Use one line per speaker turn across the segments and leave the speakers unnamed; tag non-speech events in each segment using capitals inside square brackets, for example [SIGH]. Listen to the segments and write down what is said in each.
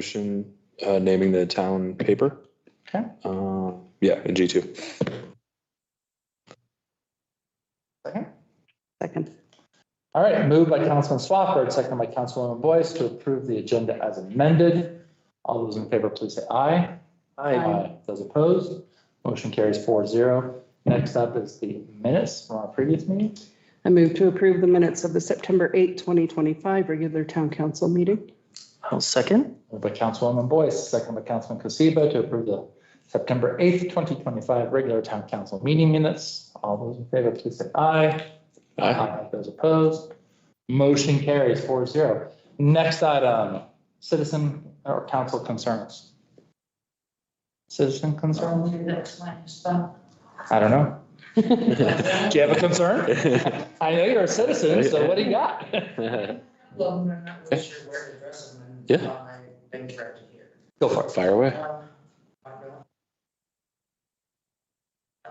resolution uh, naming the town paper.
Okay.
Uh, Yeah, in G two.
Second.
Second.
All right, moved by Councilman Swafford, second by Councilwoman Boyce to approve the agenda as amended. All those in favor, please say aye. Those opposed, motion carries four zero. Next up is the minutes from our previous meeting.
I move to approve the minutes of the September 8, 2025 regular town council meeting.
I'll second.
Moved by Councilwoman Boyce, second by Councilman Cosiba to approve the September eighth, twenty twenty-five regular town council meeting minutes. All those in favor, please say aye. Aye. Those opposed, motion carries four zero. Next item, citizen or council concerns. Citizen concern?
That's my stuff.
I don't know. Do you have a concern?
Aye.
I know you're a citizen, so what do you got?
Well, I'm not really sure where to address them. and
Yeah.
I've been trapped here.
Go for
[LAUGHS] Fire away.
Um, I don't-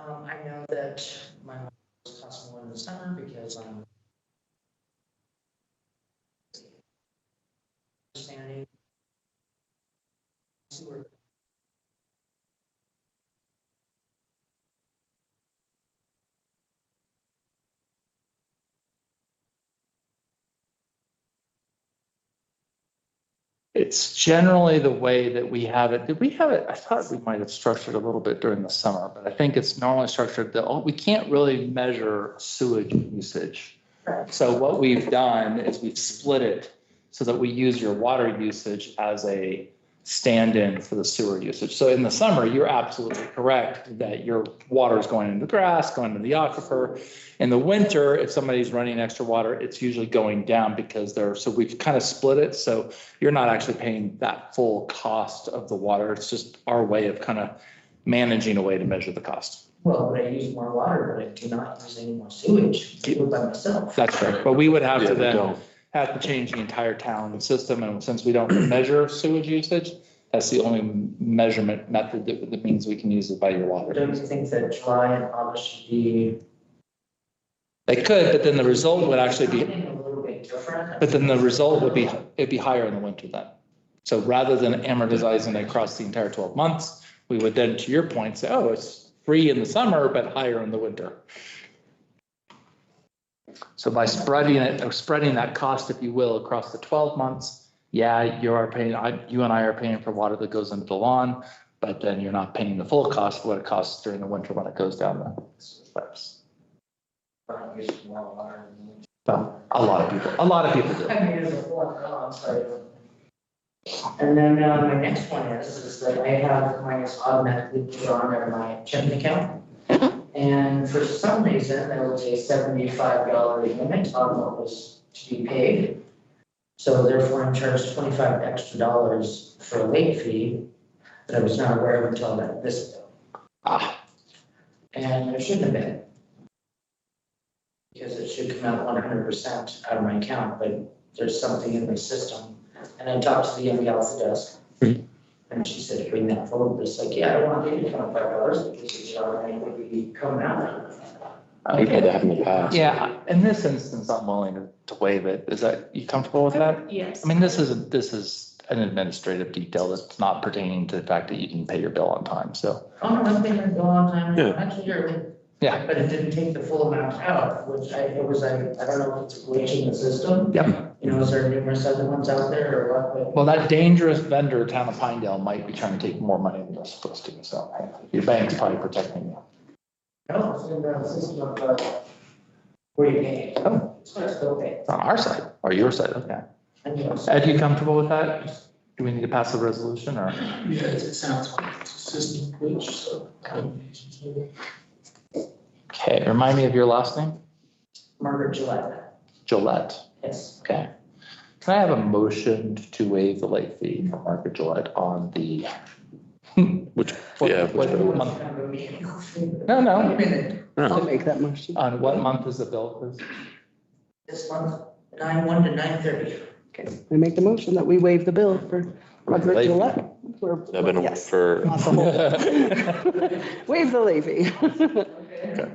Um, I know that my life was cost more in the summer because I'm understanding sewer.
It's generally the way that we have it. Did we have it? I thought we might have structured a little bit during the summer, but I think it's normally structured that oh, we can't really measure sewage usage.
Correct.
So what we've done is we've split it so that we use your water usage as a stand-in for the sewer usage. So in the summer, you're absolutely correct that your water is going into the grass, going into the aquifer. In the winter, if somebody's running extra water, it's usually going down because they're, so we've kind of split it. So you're not actually paying that full cost of the water. It's just our way of kind of managing a way to measure the cost.
Well, but I use more water, but I do not use any more sewage, I live by myself.
That's fair. But we would have
Yeah,
to
we
then
don't.
have to change the entire town system, and since we don't [CLEARS THROAT] measure sewage usage, that's the only measurement method that, that means we can use it by your water.
Don't you think that July and August should be?
They could, but then the result would actually be,
Something A little bit different.
but then the result would be, it'd be higher in the winter then. So rather than amortizing it across the entire twelve months, we would then, to your point, say, oh, it's free in the summer, but higher in the winter. So by spreading it, or spreading that cost, if you will, across the twelve months, yeah, you are paying, I, you and I are paying for water that goes into the lawn, but then you're not paying the full cost of what it costs during the winter when it goes down the slopes.
Not using more water.
Well, a lot of people, a lot of people do.
I mean, there's a lot, oh, I'm sorry. And then uh, my next one is, is that I have mine is automatically drawn on my checking account. And for some reason, there was a seventy-five dollar limit on what was to be paid. So therefore, I'm charged twenty-five extra dollars for a late fee that I was not aware of until that this bill.
Ah,
And there shouldn't have been. Because it should come out one hundred percent out of my account, but there's something in my system. And I talked to the young gal at the desk.
Mhm.
And she said, bring that forward, but it's like, yeah, I don't want to pay twenty-five dollars because it's already would be coming out.
We've had that happen in the past.
yeah, in this instance, I'm willing to- to waive it. Is that, you comfortable with that?
Yes.
I mean, this isn't, this is an administrative detail that's not pertaining to the fact that you didn't pay your bill on time, so.
Oh, no, I've been here a long time,
Yeah.
actually, you're.
Yeah.
But it didn't take the full amount out, which I, it was like, I don't know if it's glitching the system.
Yep.
You know, is there numerous other ones out there or what, but
Well, that dangerous vendor, Town of Pinedale, might be trying to take more money than they're supposed to, so your bank's probably protecting you.
No, it's in the system of, uh, where you pay.
Oh.
It's where it's still paid.
It's on our side or your side, okay.
And you also-
Ed, you comfortable with that? Do we need to pass the resolution or?
Yeah, it sounds like it's a system glitch, so combinations of it.
Okay, remind me of your last name?
Margaret Gillette,
Gillette,
yes.
okay. Can I have a motion to waive the late fee for Margaret Gillette on the? [LAUGHS]
Which,
What-
yeah,
what month?
Kind of a meeting.
No,
Wait a
no,
minute,
I'll make that motion.
on what month is the bill, please?
this month, nine one to nine thirty.
Okay, I make the motion that we waive the bill for Margaret
Levy.
Gillette. for-
I've been
Yes.
for,
Not the whole bill. [LAUGHS] Waive the levy. [LAUGHS]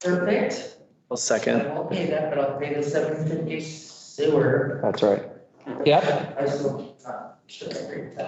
Perfect.
[LAUGHS] I'll
I
second.
won't pay that, but I'll pay the seven fifty sewer.
That's right. Yep.
I still, uh, should I agree with that?